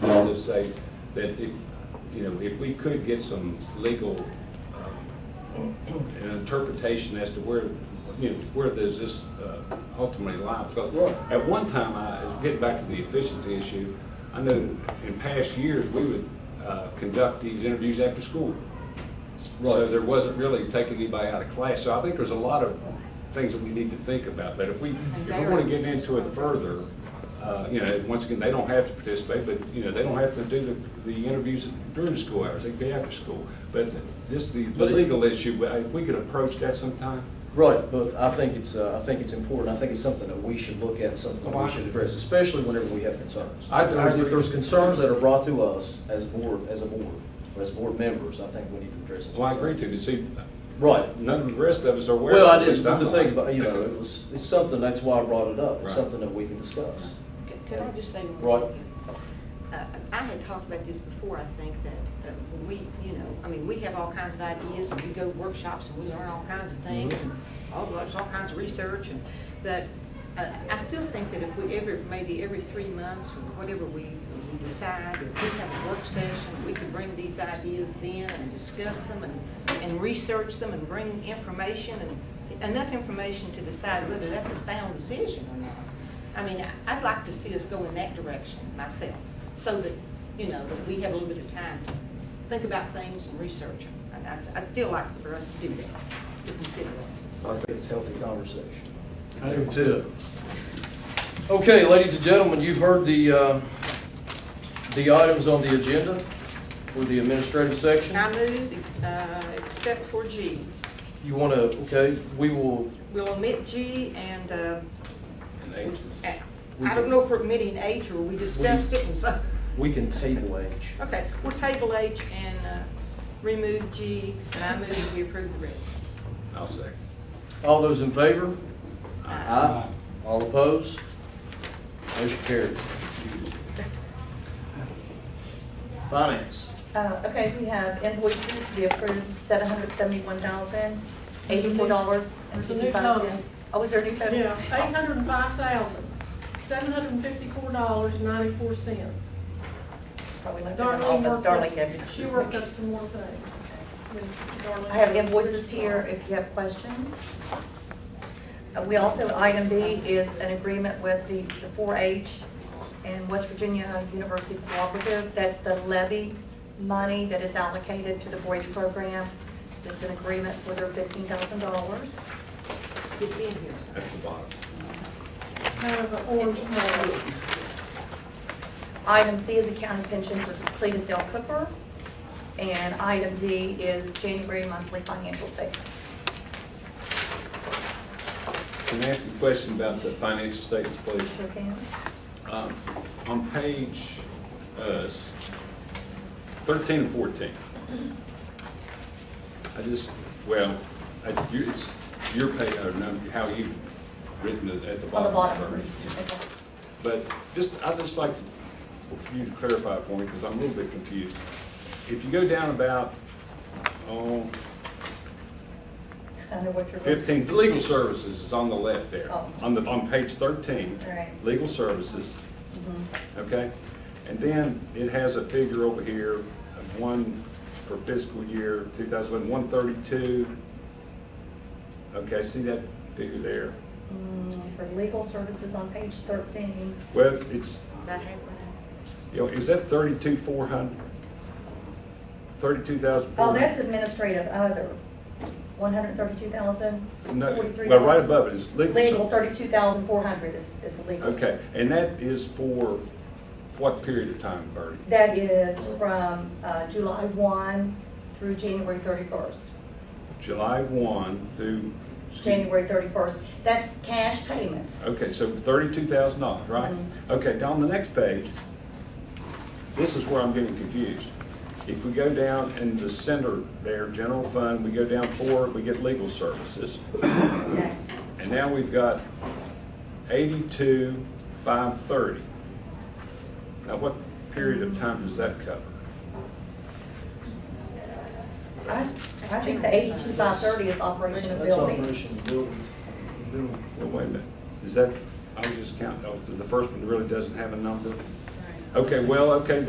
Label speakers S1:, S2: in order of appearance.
S1: kind of say that if, you know, if we could get some legal um, an interpretation as to where, you know, where does this uh, ultimately lie? Because at one time, I, getting back to the efficiency issue, I know in past years, we would uh, conduct these interviews after school. So
S2: Right.
S1: there wasn't really taking anybody out of class. So I think there's a lot of things that we need to think about. But if we, if we want to get into it further, uh, you know, once again, they don't have to participate, but, you know, they don't have to do the, the interviews during the school hours, they can be after school. But just the, the
S2: But it-
S1: legal issue, but if we could approach that sometime,
S2: Right, but I think it's, uh, I think it's important, I think it's something that we should look at, and something that we should address, especially whenever we have concerns.
S1: I- I agree.
S2: If there's concerns that are brought to us as a board, as a board, or as board members, I think we need to address it.
S1: well, I agree to, you see,
S2: Right.
S1: none of the rest of us are aware.
S2: Well, I
S1: at least
S2: didn't, but
S1: I'm
S2: the
S1: not.
S2: thing, about you know, it was, it's something, that's why I brought it up, it's
S1: Right.
S2: something that we can discuss.
S3: Could I just say
S2: Right.
S3: one thing? Uh, I had talked about this before, I think, that uh, when we, you know, I mean, we have all kinds of ideas, and we go to workshops, and we learn all kinds of things, and all, there's all kinds of research, and, but uh, I still think that if we ever, maybe every three months, or whatever we we decide, if we have a work session, we could bring these ideas then and discuss them and, and research them and bring information and enough information to decide whether that's a sound decision or not. I mean, I- I'd like to see us go in that direction myself, so that, you know, that we have a little bit of time to think about things and research them. And I'd, I'd still like for us to do that, to consider it.
S2: I think it's healthy conversation.
S4: I do
S2: That's it. Okay, ladies and gentlemen, you've heard the, uh, the items on the agenda for the administrative section.
S3: And I move, uh, except for G.
S2: You want to, okay, we will,
S3: We'll omit G and, uh,
S1: And
S3: we-
S1: ages.
S3: I I don't know if we're omitting H or we discussed it and so,
S2: we can table H.
S3: okay, we'll table H and, uh, remove G, and I move we approve the rest.
S1: I'll second.
S2: All those in favor?
S3: Uh,
S2: Aye. All opposed? Motion carries. Finance.
S5: Uh, Okay, we have invoices, we approved seven hundred seventy-one thousand, eighty-four dollars and
S6: There's a new
S5: fifty-five
S6: total.
S5: cents. Oh, is there a new Oh, total?
S6: Yeah, eight hundred and five thousand, seven hundred and fifty-four dollars, ninety-four cents.
S5: Oh, we left it in the
S6: Darlene
S5: office,
S6: worked up,
S5: Darlene gave it.
S6: she worked up some more things. Darlene-
S5: I have invoices here if you have questions. Uh, We also, item B is an agreement with the the 4-H and West Virginia University Cooperative. That's the levy money that is allocated to the 4-H program. It's just an agreement for their $15,000.
S3: It's in here. so.
S1: That's the bottom.
S6: Kind of an orange one.
S5: Item C is a county pension for depleted Del Cooper. And item D is January monthly financial statements.
S1: Can I ask you a question about the financial statements, please?
S5: Sure can.
S1: Um, On page uh, 13 and 14, I just, well, I- you- it's your page, or no, how you've written it at the
S5: On the
S1: bottom.
S5: bottom.
S1: Yeah. But just, I'd just like for you to clarify for me, because I'm a little bit confused. If you go down about, oh,
S5: I know what you're.
S1: 15, the legal services is on the left there,
S5: Oh.
S1: on the, on page 13.
S5: Right. Mm-hmm.
S1: Legal services, okay? And then it has a figure over here of one for fiscal year 2011, 132. Okay, see that figure there?
S5: Mm, For legal services on page 13.
S1: Well, it's- it's,
S3: About halfway down.
S1: you know, is that 32,400? 32,400?
S5: Oh, that's administrative other, 132,000.
S1: No, well, right above it is legal. ser-
S5: Legal, 32,400 is, is the legal.
S1: Okay, and that is for what period of time, Bertie?
S5: That is from uh, July 1 through January 31st.
S1: July 1 through.
S5: January 31st. That's cash payments.
S1: Okay, so $32,000, right? Okay, now on the next page, this is where I'm getting confused. If we go down in the center there, general fund, we go down four, we get legal services.
S5: Okay.
S1: And now we've got 82,530. Now, what period of time does that cover?
S5: I I think the 82530 is operation of
S2: That's
S5: building.
S2: operation building, building.
S1: Well, wait a minute, is that, I was just counting, oh, the first one really doesn't have a number? Okay, well, okay,